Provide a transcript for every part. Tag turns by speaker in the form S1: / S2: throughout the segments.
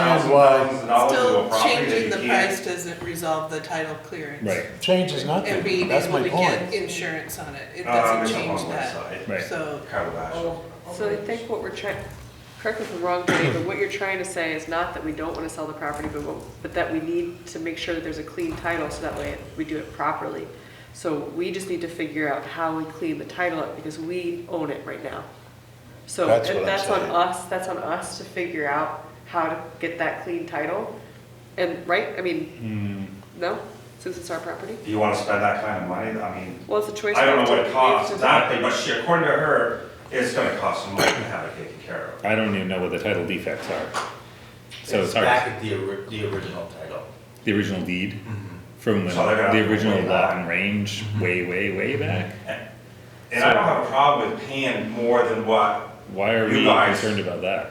S1: thousand
S2: why
S1: thousands of dollars into a
S3: Still
S1: property that
S3: changing the
S1: you can't.
S3: price doesn't resolve the title clearance.
S4: Right,
S2: change is
S3: And
S2: nothing,
S3: being
S2: that's
S3: able
S2: my
S3: to get
S2: point.
S3: insurance on it, it
S1: Um,
S3: doesn't
S1: it's up
S3: change
S1: on the west
S3: that.
S1: side,
S4: right.
S3: So,
S1: Calabash.
S5: So I think what we're trying, correct me if I'm wrong, Dave, but what you're trying to say is not that we don't want to sell the property, but, what- but that we need to make sure that there's a clean title, so that way we do it properly. So we just need to figure out how we clean the title up, because we own it right now. So
S2: That's what I'm
S5: that's on
S2: saying.
S5: us, that's on us to figure out how to get that clean title. And, right, I mean,
S1: Hmm.
S5: no, since it's our property?
S1: Do you wanna spend that kind of money? I mean,
S5: Well, it's a choice.
S1: I don't know what
S5: we
S1: it
S5: have
S1: costs
S5: to-
S1: exactly, but she, according to her, it's gonna cost some money to have it taken care of.
S4: I don't even know what the title defects are. So it's
S6: It's
S4: hard,
S6: back
S4: to-
S6: at the, ori- the original title.
S4: the original deed from when,
S1: Mm-hmm. So they're gonna
S4: the
S1: have to
S4: original
S1: way
S4: lot
S1: back. Mm-hmm.
S4: and range, way, way, way back.
S1: And I don't have a problem with paying more than what
S4: Why are
S1: You
S4: we
S1: guys-
S4: concerned about that?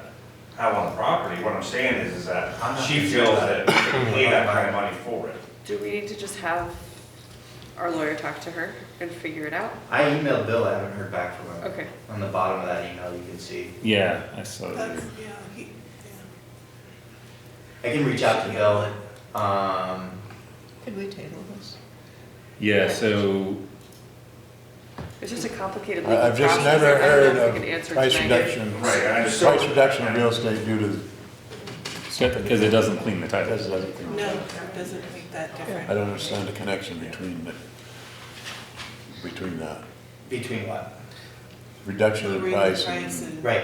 S1: I have on the property. What I'm saying is, is that
S6: I'm not
S1: she
S6: concerned
S1: feels that
S6: about
S1: we should pay that kind of money for it.
S5: Do we need to just have our lawyer talk to her and figure it out?
S6: I emailed Bill, I haven't heard back from him.
S5: Okay.
S6: On the bottom of that email, you can see.
S4: Yeah, I saw that.
S3: that's, yeah, he, yeah.
S6: I can reach out to Bill, um,
S7: Could we table this?
S4: Yeah, so
S5: It's just a complicated legal
S2: I- Uh, I've
S5: process.
S2: just never
S5: I don't
S2: heard
S5: know if we can
S2: of
S5: answer
S2: price
S5: tonight.
S2: reduction,
S1: Right, I understand.
S2: price reduction of real estate due to,
S4: Because it doesn't clean the title.
S2: that's another thing.
S3: no, it doesn't make that
S2: I
S3: difference.
S2: don't understand the connection between, the- between that,
S6: between what?
S2: reduction of
S3: Lowering the
S2: price
S3: price
S2: and
S3: and-
S6: Right,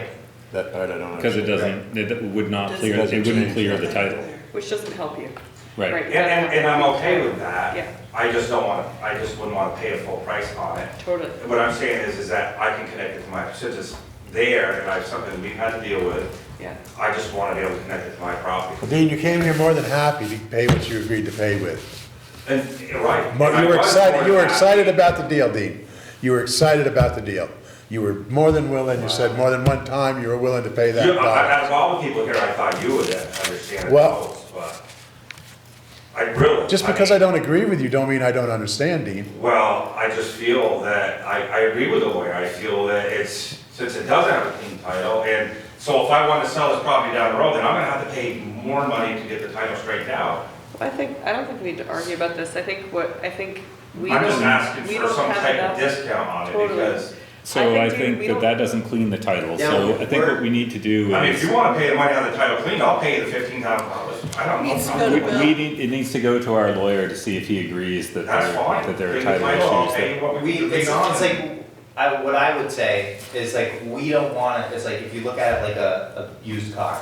S2: that part I don't understand.
S4: Because it doesn't, it would not clear,
S2: Doesn't
S4: it wouldn't
S2: change.
S4: clear the title.
S5: Which doesn't help you.
S4: Right,
S1: And, and, and I'm okay with that.
S5: Yeah.
S1: I just don't wanna, I just wouldn't wanna pay a full price on it.
S5: Totally.
S1: What I'm saying is, is that I can connect it to my, since it's there and I have something we've had to deal with,
S5: Yeah.
S1: I just wanna be able to connect it to my property.
S8: Well, Dean, you came here more than happy to pay what you agreed to pay with.
S1: And, you're right.
S8: Mo-
S1: and I
S8: You were
S1: was more
S8: excited, you were
S1: than
S8: excited
S1: happy.
S8: about the deal, Dean. You were excited about the deal. You were more than willing, you said more than one time you were willing to pay that
S1: You, I-
S8: dollar.
S1: out of all the people here, I thought you would understand it
S8: Well-
S1: most, but I really.
S8: Just because I
S1: mean,
S8: don't agree with you, don't mean I don't understand, Dean.
S1: Well, I just feel that, I, I agree with the lawyer, I feel that it's, since it doesn't have a clean title, and so if I want to sell this property down the road, then I'm gonna have to pay more money to get the title straightened out.
S5: I think, I don't think we need to argue about this. I think what, I think we don't.
S1: I'm just asking
S5: we
S1: for
S5: don't
S1: some
S5: have
S1: type of
S5: enough-
S1: discount on it,
S5: Totally.
S1: because,
S4: so
S5: I
S4: I
S5: think, dude,
S4: think
S5: we
S4: that
S5: don't-
S4: that doesn't clean the title,
S6: Yeah,
S4: so I think
S6: we're-
S4: what we need to do
S1: I mean, if
S4: is.
S1: you wanna pay the money on the title clean, I'll pay the fifteen thousand dollars, I don't
S3: Needs to
S1: know.
S3: go
S4: We,
S3: to
S1: I'm-
S3: Bill.
S4: we need, it needs to go to our lawyer to see if he agrees that there,
S1: That's fine.
S4: that there are
S1: Clean the
S4: title
S1: I'll
S4: issues.
S1: pay
S4: that-
S1: what
S6: We,
S1: we need to
S6: it's,
S1: pay on
S6: it's
S1: it.
S6: like, I, what I would say is like, we don't wanna, it's like, if you look at it like a, a used car.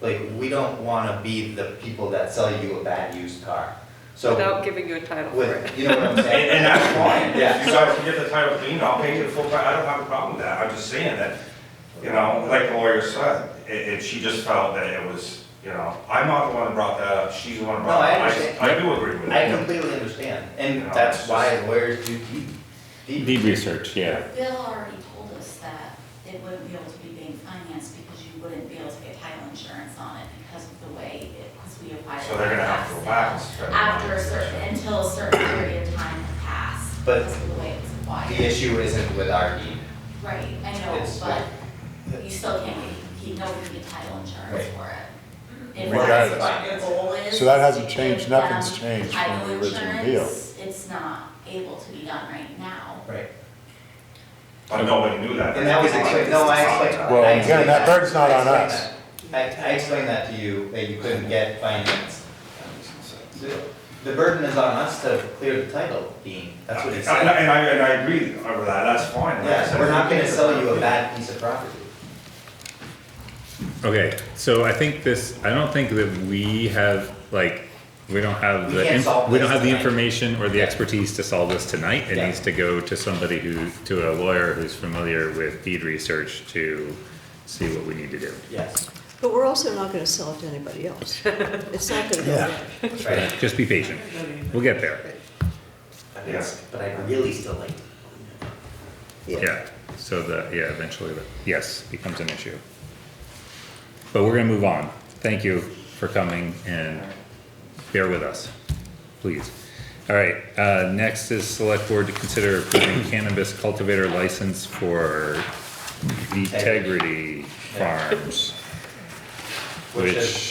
S6: Like, we don't wanna be the people that sell you a bad used car, so,
S5: Without giving you a title for it.
S6: with, you know what I'm saying?
S1: And, and that's fine,
S6: Yeah.
S1: if you guys can get the title clean, I'll pay you the full price, I don't have a problem with that, I'm just saying that, you know, like the lawyer said, it, it, she just felt that it was, you know, I'm not the one who brought that up, she's the one who
S6: No,
S1: brought
S6: I
S1: it up.
S6: understand.
S1: I do agree with
S6: I
S1: it.
S6: completely understand, and that's why lawyers do deep, deep.
S4: Deed research, yeah.
S9: Bill already told us that it wouldn't be able to be being financed because you wouldn't be able to get title insurance on it because of the way it, because we applied. it
S1: So they're gonna have to go back and
S9: tax
S1: spend
S9: sale After a
S1: money.
S9: certain, until a certain period of time had passed.
S6: But
S9: Because of the way it was applied.
S6: The issue isn't with our deed.
S9: Right, I know,
S6: It's-
S9: but you still can't get, you know, you can get title insurance
S6: Right.
S9: for it. If
S8: Regardless.
S9: that's what your goal is.
S8: So that hasn't
S9: to
S8: changed,
S9: give them
S8: nothing's changed from
S9: title
S8: the original deal.
S9: insurance, It's not able to be done right now.
S6: Right.
S1: But nobody knew that.
S6: And that was explained, no, I explained. I
S8: Well, again,
S6: explained
S8: that burden's not
S6: I
S8: on
S6: explained
S8: us.
S6: that. I, I explained that to you, that you couldn't get finance. The- The burden is on us to clear the title, Dean, that's what it
S1: And I,
S6: said.
S1: and I- and I agree with that, that's fine. Like I
S6: Yeah,
S1: said,
S6: we're not gonna sell you a bad piece of property.
S4: Okay, so I think this, I don't think that we have, like, we don't have
S6: We
S4: the,
S6: can't
S4: inf-
S6: solve
S4: we don't
S6: this
S4: have the
S6: tonight.
S4: information or the expertise to solve this tonight. It
S6: Yeah.
S4: needs to go to somebody who, to a lawyer who's familiar with deed research to see what we need to do.
S6: Yes,
S7: But we're also not gonna sell it to anybody else. It's not gonna go
S8: Yeah.
S7: there.
S6: right,
S4: Just be patient, we'll get there,
S1: Yes.
S6: but I really still like.
S4: yeah, so the, yeah, eventually, the- yes, becomes an issue. But we're gonna move on, thank you for coming and bear with us, please. All right, uh, next is select board to consider approving cannabis cultivator license for Integrity Farms.
S6: Which is-
S4: Which